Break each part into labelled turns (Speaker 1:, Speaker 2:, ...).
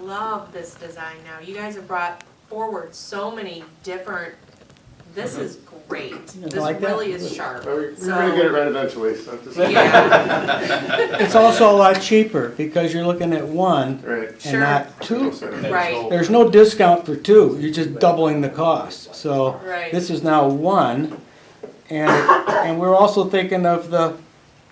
Speaker 1: love this design now. You guys have brought forward so many different, this is great.
Speaker 2: You
Speaker 1: This
Speaker 2: like that?
Speaker 1: really is sharp.
Speaker 3: Well, we- We're
Speaker 1: So-
Speaker 3: gonna get it right eventually, so just.
Speaker 1: Yeah,
Speaker 2: It's also a lot cheaper because you're looking at one
Speaker 3: Right.
Speaker 2: and
Speaker 1: Sure.
Speaker 2: not two.
Speaker 1: right,
Speaker 2: There's no discount for two, you're just doubling the cost. So
Speaker 1: Right.
Speaker 2: this is now one. And, and we're also thinking of the,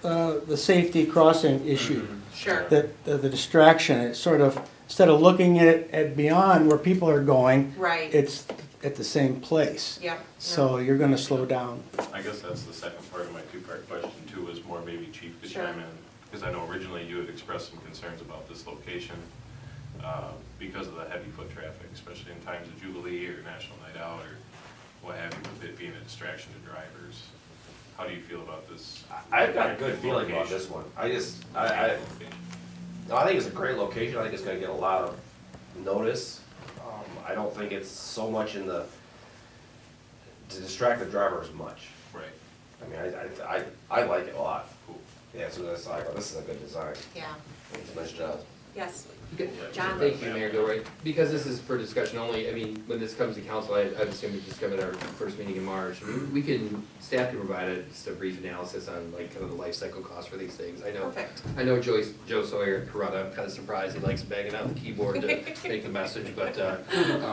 Speaker 2: uh, the safety crossing issue,
Speaker 1: sure.
Speaker 2: that, the the distraction, it's sort of, instead of looking at, at beyond where people are going,
Speaker 1: Right,
Speaker 2: it's at the same place.
Speaker 1: yep. no,
Speaker 2: So you're gonna slow down.
Speaker 4: I guess that's the second part of my two-part question too, is more maybe Chief could
Speaker 1: Sure.
Speaker 4: chime in. Because I know originally you had expressed some concerns about this location uh, because of the heavy foot traffic, especially in times of Jubilee or National Night Out or what have you, with it being a distraction to drivers. How do you feel about this?
Speaker 5: I- I've got a good feeling about this one. I just, I, I, no, I think it's a great location. I think it's gonna get a lot of notice. Um, I don't think it's so much in the, to distract the driver as much.
Speaker 4: Right,
Speaker 5: I mean, I, I, I, I like it a lot.
Speaker 4: cool.
Speaker 5: Yeah, so that's like, this is a good design.
Speaker 1: Yeah,
Speaker 5: It's a nice job.
Speaker 1: yes, John.
Speaker 6: Thank you, Mayor Gilroy. Because this is for discussion only, I mean, when this comes to council, I, I assume it's just coming at our first meeting in March. We- We can, staff can provide a, just a brief analysis on like kind of the life cycle cost for these things. I know,
Speaker 1: perfect.
Speaker 6: I know Joyce, Joe Sawyer at Corona, I'm kind of surprised he likes banging out the keyboard to make the message, but, uh,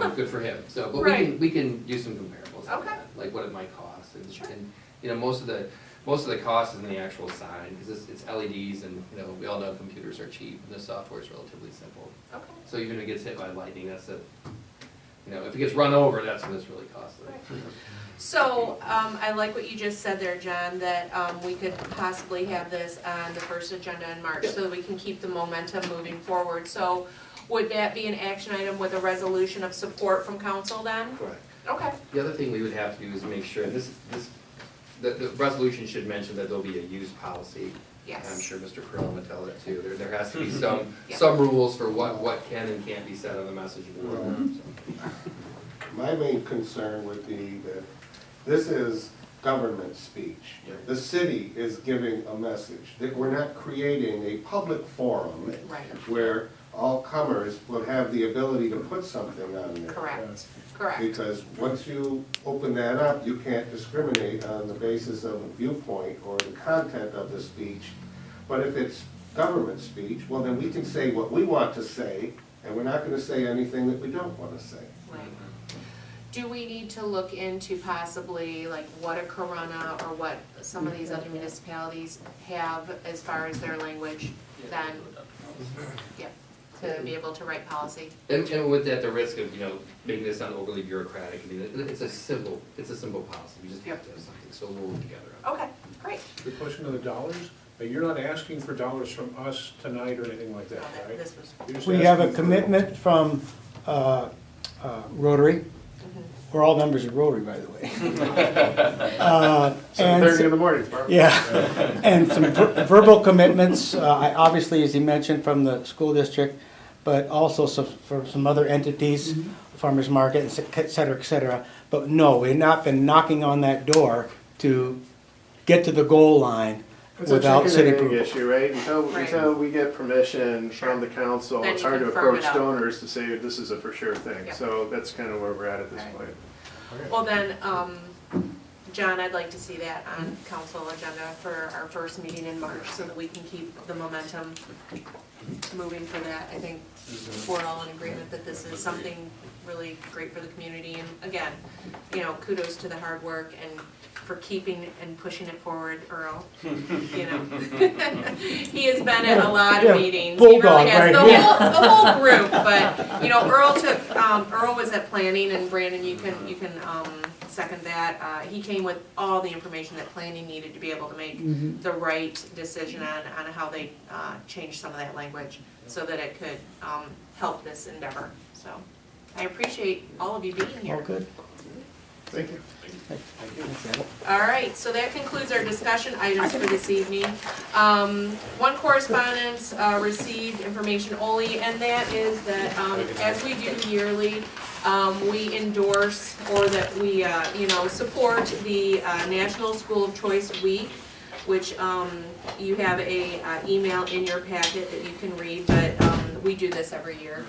Speaker 6: um, good for him. So, but we
Speaker 1: Right.
Speaker 6: can, we can do some comparables on
Speaker 1: Okay.
Speaker 6: that, like what it might cost and,
Speaker 1: Sure.
Speaker 6: and, you know, most of the, most of the cost is in the actual sign, because it's, it's LEDs and, you know, we all know computers are cheap and the software is relatively simple.
Speaker 1: Okay,
Speaker 6: So even if it gets hit by lightning, that's a, you know, if it gets run over, that's when it's really costly.
Speaker 1: so, um, I like what you just said there, John, that, um, we could possibly have this on the first agenda in March, so that we can keep the momentum moving forward. So, would that be an action item with a resolution of support from council then?
Speaker 6: Correct.
Speaker 1: Okay,
Speaker 6: The other thing we would have to do is make sure, this, this, the, the resolution should mention that there'll be a use policy. I'm
Speaker 1: yes, Mm-hmm.
Speaker 6: sure Mr. Curran would tell it too. There, there has to be some,
Speaker 1: Yeah.
Speaker 6: some rules for what, what can and can't be said on the message board.
Speaker 1: Mm-hmm.
Speaker 6: so.
Speaker 3: My main concern would be that this is government speech. The city is giving a message, that we're not creating a public forum
Speaker 1: right,
Speaker 3: where all comers will have the ability to put something on there.
Speaker 1: correct, correct,
Speaker 3: Because once you open that up, you can't discriminate on the basis of a viewpoint or the content of the speech. But if it's government speech, well, then we can say what we want to say, and we're not gonna say anything that we don't wanna say.
Speaker 1: right. Do we need to look into possibly like what a Corona or what some of these other municipalities have as far as their language then? Yep, to be able to write policy,
Speaker 6: And, and with that, the risk of, you know, making this sound overly bureaucratic, I mean, it- it's a simple, it's a simple policy. We just have to have something, so we'll work together on it.
Speaker 1: okay, great.
Speaker 7: The question of the dollars, uh, you're not asking for dollars from us tonight or anything like that, right?
Speaker 1: This was,
Speaker 7: You're just
Speaker 2: We have a
Speaker 7: asking for-
Speaker 2: commitment from uh, uh, Rotary. We're all members of Rotary, by the way. Uh, and
Speaker 3: Seven thirty in the morning,
Speaker 2: Yeah, and some ver- verbal commitments, uh, I- obviously, as you mentioned, from the school district, but also some- from some other entities, farmers market, and se- et cetera, et cetera. But no, we've not been knocking on that door to get to the goal line
Speaker 3: It's a
Speaker 2: without
Speaker 3: chicken
Speaker 2: city
Speaker 3: and egg
Speaker 2: approval.
Speaker 3: issue, right? Until,
Speaker 1: Right.
Speaker 3: until we get permission from the council,
Speaker 1: Then
Speaker 3: it's
Speaker 1: you
Speaker 3: hard to
Speaker 1: can firm it
Speaker 3: approach
Speaker 1: up.
Speaker 3: donors to say, this is a for sure thing.
Speaker 1: Yeah.
Speaker 3: So that's kind of where we're at at this
Speaker 1: Right.
Speaker 3: point.
Speaker 1: well then, um, John, I'd like to see that on council agenda for our first meeting in March, so that we can keep the momentum moving for that. I think we're all in agreement that this is something really great for the community, and again, you know, kudos to the hard work and for keeping and pushing it forward, Earl, you know. He has been at a lot
Speaker 2: Yeah,
Speaker 1: of meetings, he really
Speaker 2: bulldog
Speaker 1: has, the
Speaker 2: right here.
Speaker 1: whole, the whole group, but, you know, Earl took, um, Earl was at planning, and Brandon, you can, you can, um, second that, uh, he came with all the information that planning needed to be able to
Speaker 2: Mm-hmm.
Speaker 1: make the right decision on, on how they uh, change some of that language so that it could um, help this endeavor. So I appreciate all of you being
Speaker 2: All
Speaker 1: here.
Speaker 2: good?
Speaker 3: Thank you.
Speaker 1: All right, so that concludes our discussion items for this evening. Um, One correspondence uh, received information only, and that is that um, as we do yearly, um, we endorse or that we, uh, you know, support the uh, National School of Choice Week, which um, you have a uh, email in your packet that you can read, but um, we do this every year.